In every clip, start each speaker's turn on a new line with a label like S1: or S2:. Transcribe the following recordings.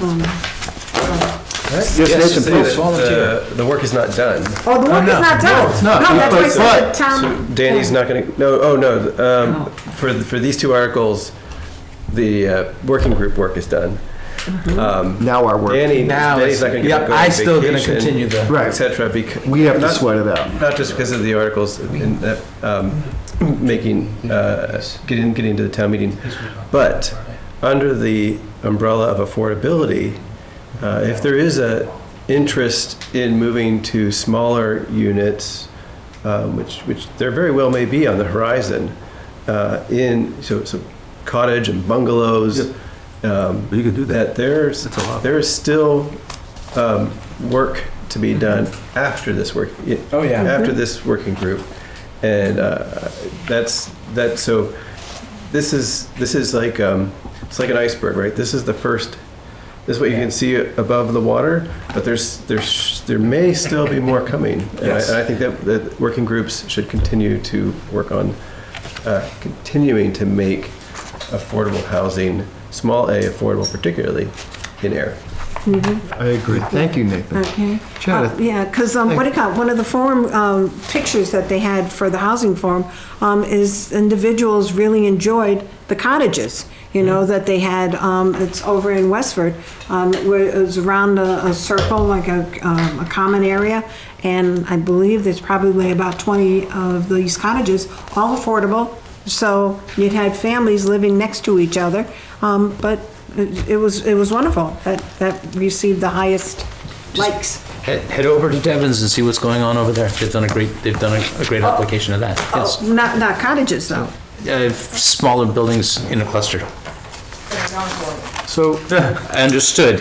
S1: um,
S2: Yes,
S3: Yes, to
S2: Nathan,
S3: say
S2: please,
S3: that,
S2: volunteer.
S3: uh, The work is not done.
S1: Oh, the work is
S2: no,
S1: not done.
S2: no, it's not.
S1: No, that's why I said
S2: But-
S1: the
S4: Um,
S1: town.
S3: So Danny's not going to, no, oh, no, um, for, the- for these two articles, the uh, working group work is done. Um,
S2: Now our work.
S3: Danny,
S4: Now
S3: Danny's
S4: it's,
S3: not going to
S4: yeah,
S3: get to go on
S4: I still gonna
S3: vacation,
S4: continue the,
S3: Et
S2: Right,
S3: cetera, because.
S2: we have to sweat it out.
S3: Not just because of the articles and that, um, making, uh, getting, getting to the town meeting, but under the umbrella of affordability, uh, if there is a interest in moving to smaller units, uh, which, which there very well may be on the horizon, uh, in, so, so cottage and bungalows. um,
S5: You could do that.
S3: That there's,
S5: That's a lot.
S3: there is still um, work to be done after this work.
S4: Oh, yeah.
S3: After this working group, and uh, that's that. So this is this is like um, it's like an iceberg, right? This is the first. This is what you can see above the water, but there's there's there may still be more coming. And,
S4: Yes.
S3: I, and I think that that working groups should continue to work on uh, continuing to make affordable housing, small a affordable, particularly in air.
S2: I agree. Thank you, Nathan.
S1: Okay.
S2: Chad,
S1: Uh, Yeah, because, um, what do you call, it, one of the forum, um, pictures that they had for the housing forum, um, is individuals really enjoyed the cottages, you know, that they had, um, it's over in Westford, um, where it was around a, a circle, like a, um, a common area, and I believe there's probably about twenty of these cottages, all affordable, so you'd had families living next to each other, um, but it it was, it was wonderful, that, that received the highest likes.
S6: Head head over to Devon's and see what's going on over there. They've done a great, they've done a- a great application of that,
S1: Oh,
S6: yes.
S1: Not, not cottages, though.
S6: Uh, Smaller buildings in a cluster.
S2: So,
S6: Understood.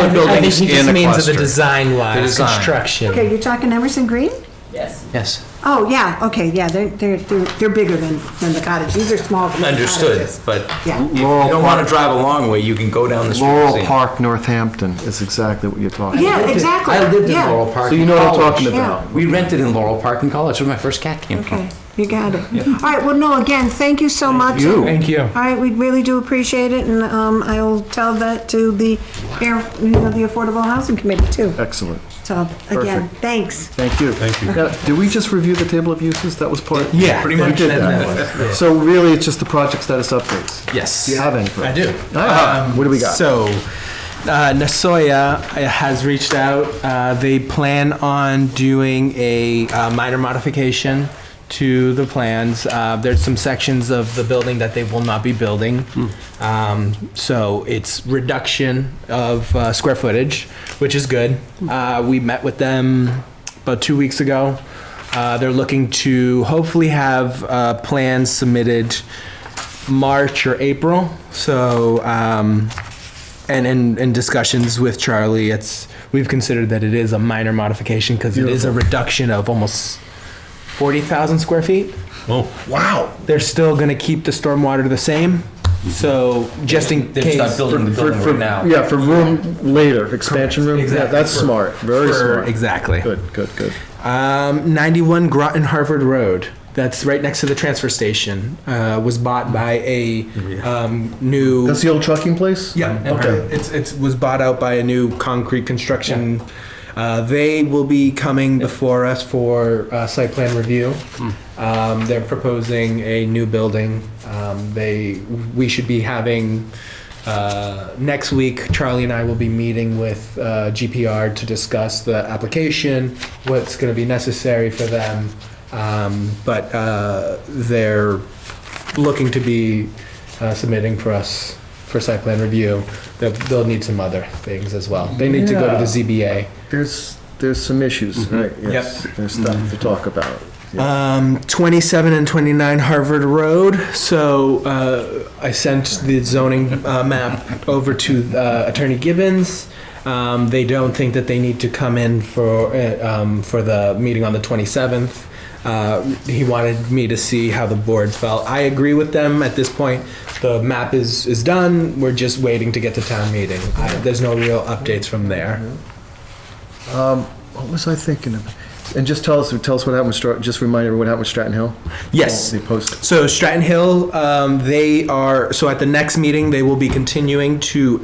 S4: Mm-hmm. I think
S6: buildings
S4: he
S6: in
S4: just
S6: a
S4: means of the
S6: cluster.
S4: design
S6: The
S4: wise,
S6: design.
S4: construction.
S1: Okay, you're talking Emerson Green?
S6: Yes,
S1: Oh, yeah, okay, yeah, they're, they're, they're they're bigger than, than the cottage. These are small
S6: understood,
S1: cottages.
S6: but
S1: Yeah.
S6: if you don't want to drive a long way, you can go down the street. and
S2: Laurel
S6: see.
S2: Park, Northampton is exactly what you're talking about.
S1: Yeah, exactly.
S4: I lived in
S1: yeah.
S4: Laurel Park.
S2: So you
S4: in
S2: know what I'm
S4: college.
S2: talking
S1: Yeah.
S2: about.
S6: We rented in Laurel Park in college, where my first cat came from.
S1: Okay, you got it. All right, well, no, again, thank you so much.
S2: you.
S4: Thank you.
S1: All right, we really do appreciate it, and um, I will tell that to the, Air- you know, the Affordable Housing Committee, too.
S2: Excellent.
S1: So, again,
S2: Perfect.
S1: thanks.
S2: Thank you. Thank you. Now, did we just review the table of uses? That was part?
S4: Yeah, pretty
S2: We
S4: much.
S2: did
S4: That-
S2: that. So really, it's just the project status updates.
S4: Yes.
S2: Do you have any? for
S4: I
S2: us?
S4: do. Um,
S2: Ah, what do we got?
S4: So, uh, Nasoya has reached out. Uh, they plan on doing a uh, minor modification to the plans. Uh, there's some sections of the building that they will not be building. Um, so it's reduction of uh, square footage, which is good. Uh, we met with them about two weeks ago. Uh, they're looking to hopefully have uh, plans submitted March or April. So, um, and in, in discussions with Charlie, it's, we've considered that it is a minor modification because it is a reduction of almost 40,000 square feet.
S2: Oh. Wow.
S4: They're still going to keep the stormwater the same. So just in
S6: They're just
S4: case.
S6: not building the building right now.
S2: Yeah, for room later, expansion room. Yeah,
S4: Exactly.
S2: that's
S4: For-
S2: smart. Very
S4: for-
S2: smart.
S4: Exactly.
S2: Good, good, good.
S4: Um, 91 Groton Harvard Road. That's right next to the transfer station. Uh, was bought by a um, new.
S2: That's the old trucking place?
S4: Yeah.
S2: Okay.
S4: It's it's was bought out by a new concrete construction. Uh, they will be coming before us for uh, site plan review. Um, they're proposing a new building. Um, they we should be having. Uh, next week, Charlie and I will be meeting with uh, GPR to discuss the application, what's going to be necessary for them. Um, but uh, they're looking to be uh, submitting for us for site plan review, they'll, they'll need some other things as well. They need to go to the ZBA.
S2: There's, there's some issues, right? Yes. There's stuff to talk about.
S4: Um, 27 and 29 Harvard Road. So uh, I sent the zoning uh, map over to uh, Attorney Gibbons. Um, they don't think that they need to come in for uh, um, for the meeting on the 27th. Uh, he wanted me to see how the board felt. I agree with them at this point. The map is is done. We're just waiting to get to town meeting. I, there's no real updates from there.
S2: What was I thinking of? And just tell us, tell us what happened with, Stra- just remind everyone what happened with Stratton Hill?
S4: Yes.
S2: The post.
S4: So Stratton Hill, um, they are, so at the next meeting, they will be continuing to